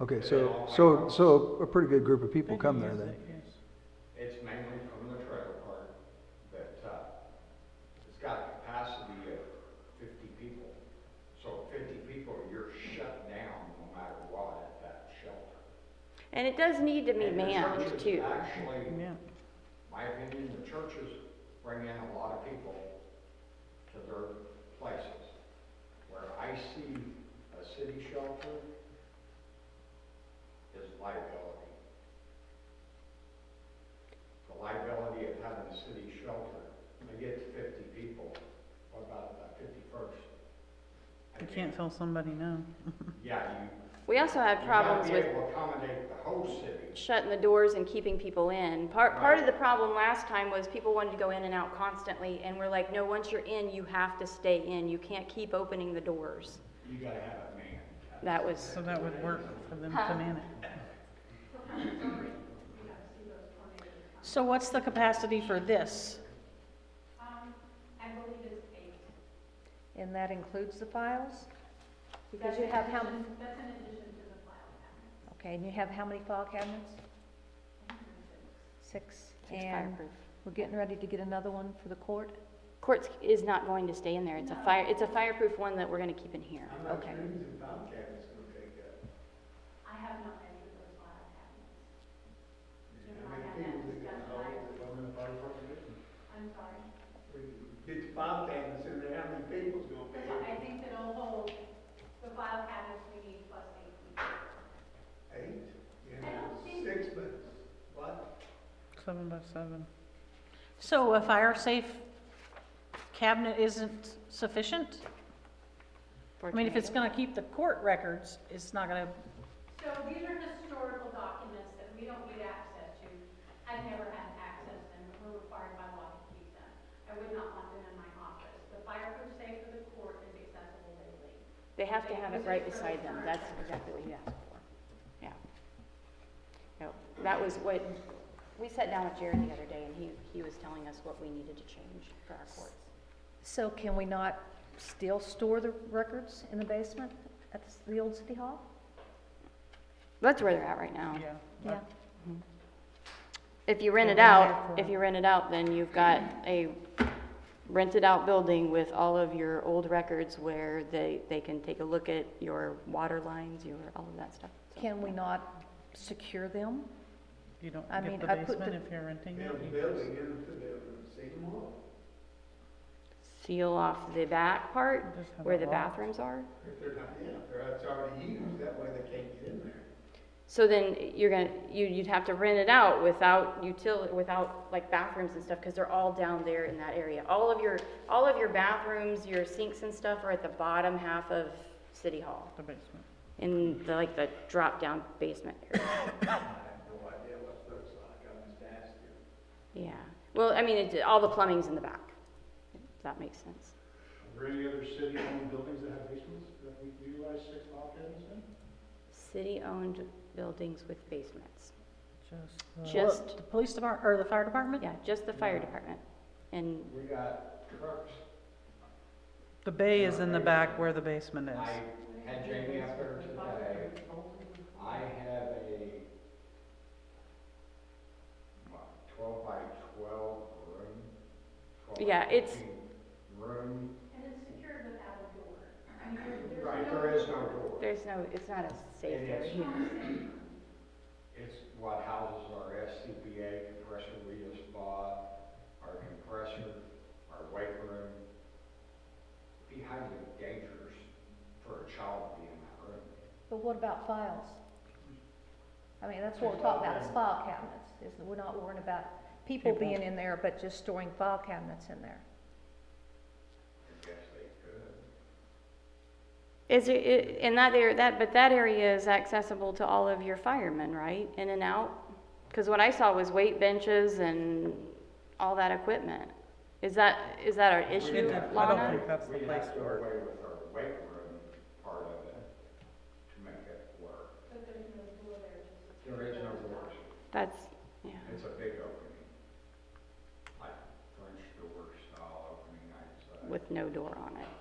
Okay, so, so, so a pretty good group of people come there then? It's mainly from the trailer park, but, uh, it's got a capacity of fifty people. So fifty people, you're shut down no matter what at that shelter. And it does need to be And the manned churches too. Actually, Yeah, my opinion, the churches bring in a lot of people to their places. Where I see a city shelter is liability. The liability of having a city shelter, they get fifty people, what about the fifty-first? you can't tell somebody no. Yeah, you. We also have problems with You gotta be able to accommodate the whole city. shutting the doors and keeping people in. Part, part of the problem last time was people wanted to go in and out constantly, and we're like, no, once you're in, you have to stay in. You can't keep opening the doors. You gotta have a man. That was, So that would work for them to manage. So what's the capacity for this? And that includes the files? Because you have how? That's in addition to the file cabinet. Okay, and you have how many file cabinets? Six. it's And fireproof. we're getting ready to get another one for the court? Courts is not going to stay in there. It's a fire, it's a fireproof one that we're gonna keep in here. Okay. Get the file cabinets in there, how many people's gonna be I think that will hold the file cabinets we need plus eight people. Eight, yeah, six, but, what? Seven by seven. So a fire safe cabinet isn't sufficient? I mean, if it's gonna keep the court records, it's not gonna, So these are historical documents that we don't get access to. I've never had access to them, but we're required by law to keep them. I would not want them in my office. The fireproof safe for the court is accessible daily. They have to have it right beside them. That's exactly what you asked for. Yeah. No, that was what, we sat down with Jared the other day, and he, he was telling us what we needed to change for our courts. So can we not still store the records in the basement at the s- the old city hall? That's where they're at right now. Yeah. Yeah. If you rent it out, if you rent it out, then you've got a rented out building with all of your old records where they, they can take a look at your water lines, your, all of that stuff. So- Can we not secure them? You don't I get mean, the I put basement the- if you're renting it. you building into the same wall. Seal off the back part just have where a the lock. bathrooms are. If they're not, yeah, if they're, it's already used, that way they can't get in there. So then you're gonna, you, you'd have to rent it out without util, without like bathrooms and stuff, cause they're all down there in that area. All of your, all of your bathrooms, your sinks and stuff are at the bottom half of City Hall. The basement. in the, like the drop down basement area. I have no idea what it looks like, I'm just asking. Yeah. Well, I mean, it, all the plumbing's in the back. If that makes sense. Are there any other city-owned buildings that have basements that we utilize six file cabinets in? City owned buildings with basements. Just the- Just- the police department, or the fire department? Yeah, just the fire department. And We got trucks. The bay is in the back where the basement is. I had Jamie up there today. I have a what, twelve by twelve room. 12 by Yeah, it's- 14 Room, And it's secured without a door. I mean, there- there's right, no- there is no door. there's no, it's not a safe It is. area. It's what houses our SCBA compressor we just bought, our compressor, our weight room. Be highly dangerous for a child to be in that room. But what about files? I mean, that's what we're talking about, is file cabinets, is that we're not worrying about people People. being in there, but just storing file cabinets in there. I guess they could. Is it, it, and that area, that, but that area is accessible to all of your firemen, right? In and out? Cause what I saw was weight benches and all that equipment. Is that, is that our It issue, did- I don't Lana? think that's the We place have to to go work. away with our weight room part of it to make it work. But there's no door there. It's There is no doors. That's, yeah. It's a big opening. Like French door style opening, I'd say. With no door on it.